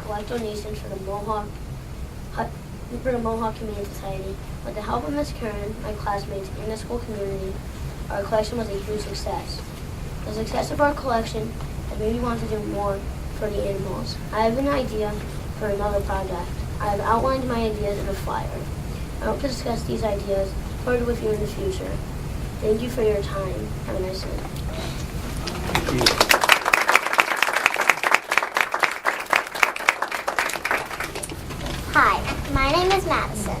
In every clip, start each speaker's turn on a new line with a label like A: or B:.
A: collect donations for the Mohawk Hut- for the Mohawk Community Society. With the help of Miss Karen, my classmates, and the school community, our collection was a huge success. The success of our collection has made me want to do more for the animals. I have an idea for another project. I have outlined my ideas in a flyer. I hope to discuss these ideas further with you in the future. Thank you for your time. Have a nice day.
B: Hi, my name is Madison.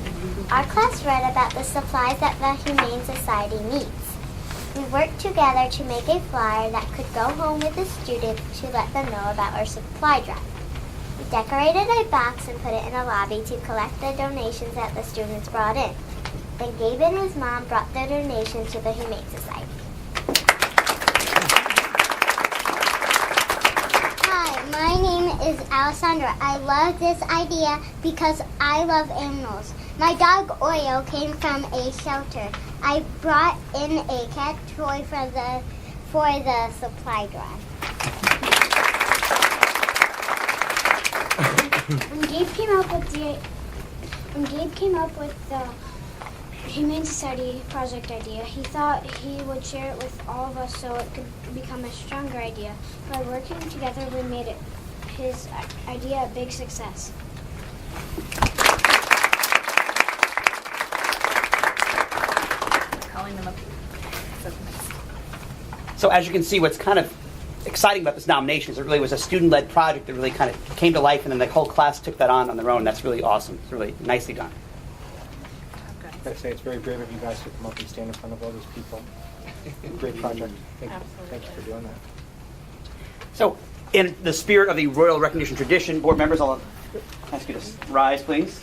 B: Our class read about the supplies that the Humane Society needs. We worked together to make a flyer that could go home with the students to let them know about our supply drive. We decorated a box and put it in the lobby to collect the donations that the students brought in. Then Gabe and his mom brought the donations to the Humane Society. Hi, my name is Alessandra. I love this idea because I love animals. My dog Oyo came from a shelter. I brought in a cat toy for the for the supply drive. when Gabe came up with the when Gabe came up with the Humane Society project idea. He thought he would share it with all of us so it could become a stronger idea. By working together, we made it his i- idea a big success.
C: calling them up. So next.
D: So as you can see, what's kind of exciting about this nomination is it really was a student-led project that really kind of came to life, and then the whole class took that on on their own. That's really awesome. It's really nicely done.
E: I gotta say, it's very brave of you guys to come up and stand in front of all these people. Great project. Thank you, thank you for doing that.
D: So, in the spirit of the royal recognition tradition, board members, I'll ask you to rise, please.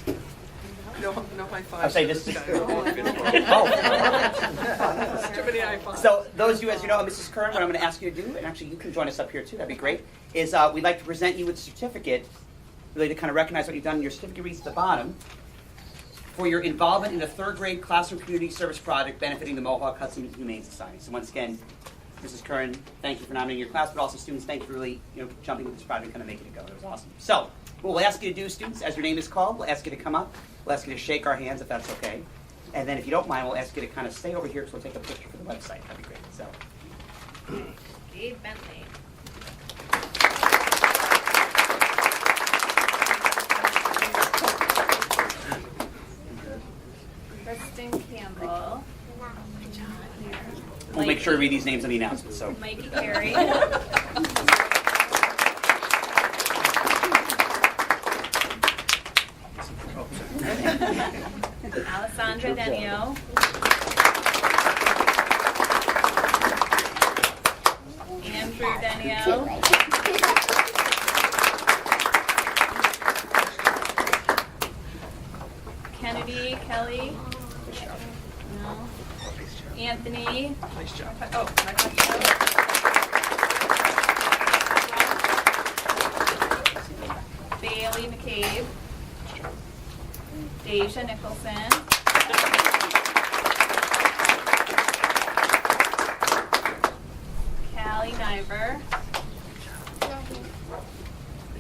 F: No, no high fives.
D: I'll say
F: to
D: this-
F: this guy. We're all good. There's Too many high fives.
D: Oh. So, those of you, as you know, Mrs. Kern, what I'm going to ask you to do, and actually you can join us up here too, that'd be great, is uh, we'd like to present you with a certificate, really to kind of recognize what you've done. Your certificate reads at the bottom for your involvement in the third grade classroom community service project benefiting the Mohawk Hudson Humane Society. So, once again, Mrs. Kern, thank you for nominating your class, but also students, thank you for really you know, jumping with this project and kind of making it go. That was awesome. So, what we'll ask you to do, students, as your name is called, we'll ask you to come up. We'll ask you to shake our hands if that's okay. And then, if you don't mind, we'll ask you to kind of stay over here because we'll take a picture for the website. That'd be great. So,
C: Gabe Bentley. Kristen Campbell.
D: we'll make sure to read these names in the announcement. So,
C: Mikey Carey. Alessandra Denio. Andrew Denio. Kennedy, Kelly. No. Anthony.
F: Nice job. Oh, my gosh.
C: Bailey McCabe. Deja Nicholson. Callie Niver.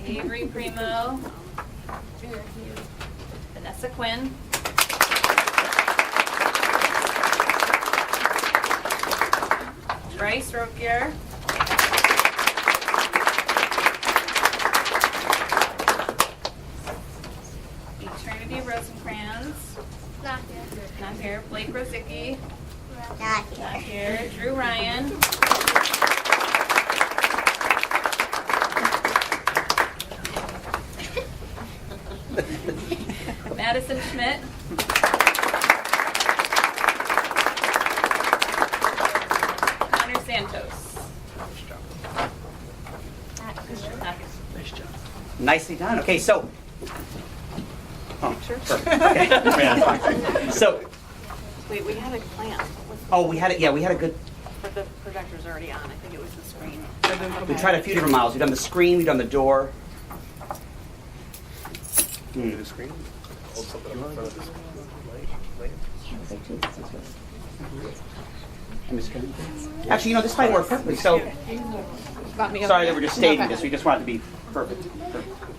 C: Avery Primo. Vanessa Quinn. Bryce Ropier. Eternity Rosencrantz.
B: Not
C: Not here. Blake Rosicki.
B: here.
C: Not here. Drew Ryan. Madison Schmidt. Connor Santos. Not here.
D: nicely done. Okay, so. Oh, perfect. Okay. Yeah, fine. so,
G: Wait, we had a plan. Was-
D: oh, we had it. Yeah, we had a good.
G: But the projector's already on. I think it was the screen.
D: We tried a few different models. We've done the screen. We've done the door. Hmm. Actually, you know, this might work perfectly. So, sorry that we're just staging this. We just wanted to be perfect. Perfect.